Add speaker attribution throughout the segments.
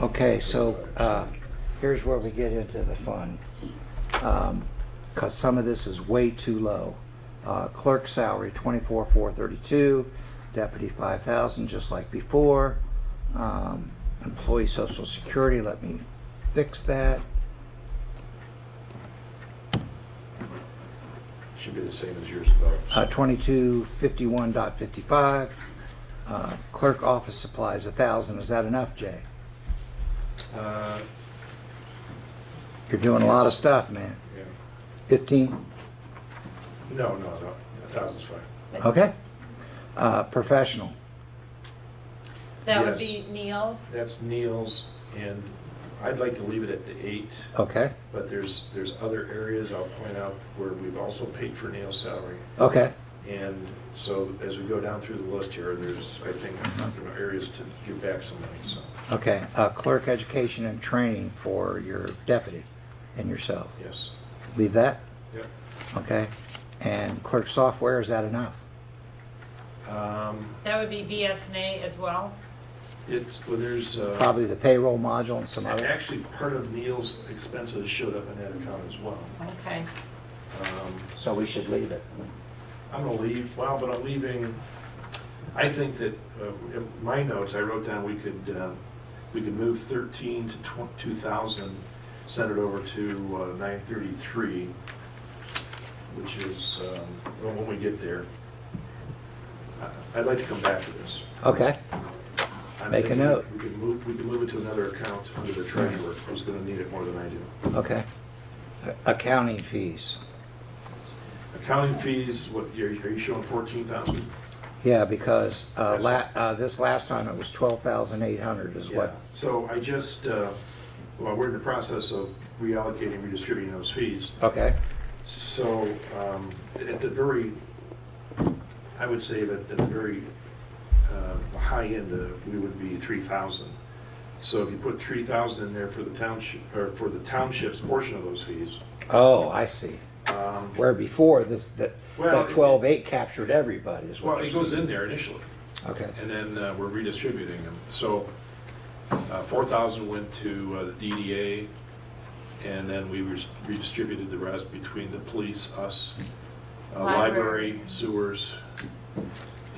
Speaker 1: Okay, so uh, here's where we get into the fun. Because some of this is way too low. Uh, Clerk salary, twenty-four, four thirty-two. Deputy, five thousand, just like before. Um, Employee social security, let me fix that.
Speaker 2: Should be the same as yours, though.
Speaker 1: Uh, twenty-two, fifty-one dot fifty-five. Uh, Clerk office supplies, a thousand. Is that enough, Jay?
Speaker 3: Uh,
Speaker 1: You're doing a lot of stuff, man.
Speaker 3: yeah.
Speaker 1: Fifteen?
Speaker 3: No, no, no, a thousand's fine.
Speaker 1: Okay. Uh, Professional.
Speaker 4: That would
Speaker 3: Yes.
Speaker 4: be Neil's.
Speaker 3: That's Neil's, and I'd like to leave it at the eight,
Speaker 1: Okay,
Speaker 3: but there's, there's other areas I'll point out where we've also paid for Neil's salary.
Speaker 1: okay.
Speaker 3: And so as we go down through the list here, there's, I think, you know, areas to give back some money, so,
Speaker 1: Okay, uh, clerk education and training for your deputy and yourself.
Speaker 3: yes.
Speaker 1: Leave that,
Speaker 3: Yep.
Speaker 1: okay? And clerk software, is that enough?
Speaker 3: Um,
Speaker 4: That would be BSNA as well.
Speaker 3: It's, well, there's, uh,
Speaker 1: Probably the payroll module and some other.
Speaker 3: actually, part of Neil's expenses showed up in that account as well.
Speaker 4: Okay.
Speaker 3: Um,
Speaker 1: So we should leave it.
Speaker 3: I'm gonna leave, well, but I'm leaving, I think that, uh, in my notes, I wrote down we could, uh, we could move 13 to 2,000, send it over to uh, 933, which is, um, well, when we get there. I- I'd like to come back to this.
Speaker 1: Okay,
Speaker 3: I'm
Speaker 1: Make a
Speaker 3: thinking
Speaker 1: note.
Speaker 3: We could move, we could move it to another account under the treasurer, who's gonna need it more than I do.
Speaker 1: okay. Accounting fees.
Speaker 3: Accounting fees, what, are you are you showing 14,000?
Speaker 1: Yeah, because, uh, la, uh, this last time it was twelve thousand eight hundred is
Speaker 3: Yeah,
Speaker 1: what,
Speaker 3: so I just, uh, well, we're in the process of reallocating, redistributing those fees.
Speaker 1: okay?
Speaker 3: So um, at the very, I would say that at the very uh, high end, uh, we would be 3,000. So if you put 3,000 in there for the township, or for the township's portion of those fees,
Speaker 1: Oh, I see.
Speaker 3: um,
Speaker 1: Where before this, that,
Speaker 3: Well,
Speaker 1: that twelve eight captured everybody is
Speaker 3: well,
Speaker 1: what
Speaker 3: it
Speaker 1: you're
Speaker 3: goes
Speaker 1: saying.
Speaker 3: in there initially.
Speaker 1: Okay,
Speaker 3: and then uh, we're redistributing them. So uh, 4,000 went to uh, the DDA, and then we res- redistributed the rest between the police, us, uh,
Speaker 4: Library.
Speaker 3: library, sewers,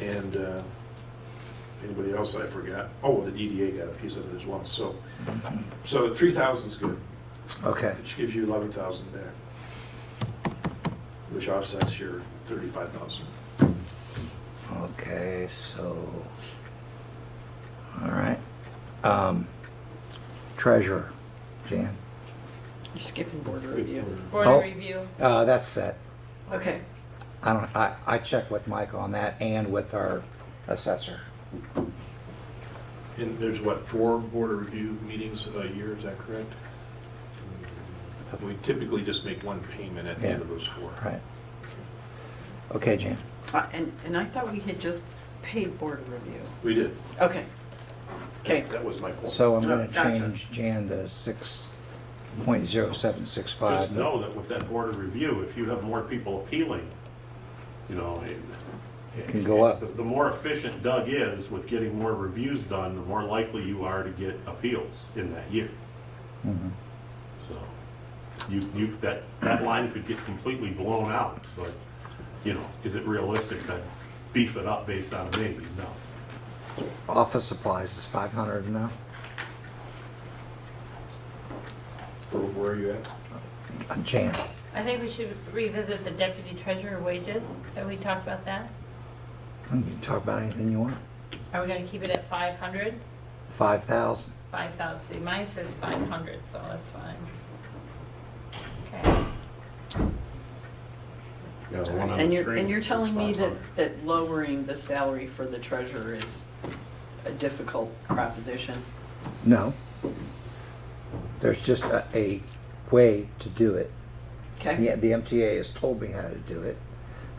Speaker 3: and uh, anybody else I forgot. Oh, the DDA got a piece of it as well. So, so 3,000's good,
Speaker 1: okay.
Speaker 3: which gives you 11,000 back, which offsets your 35,000.
Speaker 1: Okay, so, all right. Um, Treasurer, Jan.
Speaker 5: You're skipping border review.
Speaker 1: Oh.
Speaker 4: Board review.
Speaker 1: Uh, that's set.
Speaker 5: Okay,
Speaker 1: I don't, I, I checked with Mike on that and with our assessor.
Speaker 3: And there's what, four board of review meetings a year, is that correct? We typically just make one payment at the end of those four.
Speaker 1: Right. Okay, Jan.
Speaker 5: Uh, and, and I thought we had just paid border review.
Speaker 3: We did.
Speaker 5: Okay, okay,
Speaker 3: That was my point.
Speaker 1: So I'm gonna
Speaker 5: Gotcha.
Speaker 1: change Jan to six point zero seven six
Speaker 6: Just
Speaker 1: five.
Speaker 6: know that with that board of review, if you have more people appealing, you know, it-
Speaker 1: It can go up.
Speaker 6: the- the more efficient Doug is with getting more reviews done, the more likely you are to get appeals in that year.
Speaker 3: Mm-hmm.
Speaker 1: Mhm.
Speaker 6: So you, you, that, that line could get completely blown out, but, you know, is it realistic to beef it up based on maybe? No.
Speaker 1: Office supplies is five hundred now.
Speaker 3: Where- Where are you at?
Speaker 1: Uh, Jan,
Speaker 4: I think we should revisit the deputy treasurer wages. Have we talked about that?
Speaker 1: you can talk about anything you want.
Speaker 4: Are we gonna keep it at 500?
Speaker 1: Five thousand.
Speaker 4: 5,000. See, Mine says 500, so that's fine. Okay.
Speaker 3: Yeah, the one on the
Speaker 5: and you're,
Speaker 3: screen
Speaker 5: and you're
Speaker 3: is
Speaker 5: telling me that,
Speaker 3: 500.
Speaker 5: that lowering the salary for the treasurer is a difficult proposition?
Speaker 1: No. There's just a, a way to do it. Yeah,
Speaker 5: Okay,
Speaker 1: the MTA has told me how to do it.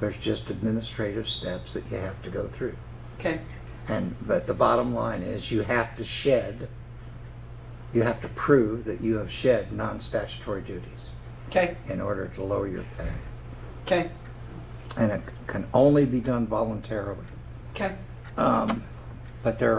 Speaker 1: There's just administrative steps that you have to go through.
Speaker 5: okay,
Speaker 1: And, but the bottom line is you have to shed, you have to prove that you have shed non-statutory duties
Speaker 5: okay,
Speaker 1: in order to lower your pay.
Speaker 5: okay,
Speaker 1: And it can only be done voluntarily.
Speaker 5: okay.
Speaker 1: Um, But there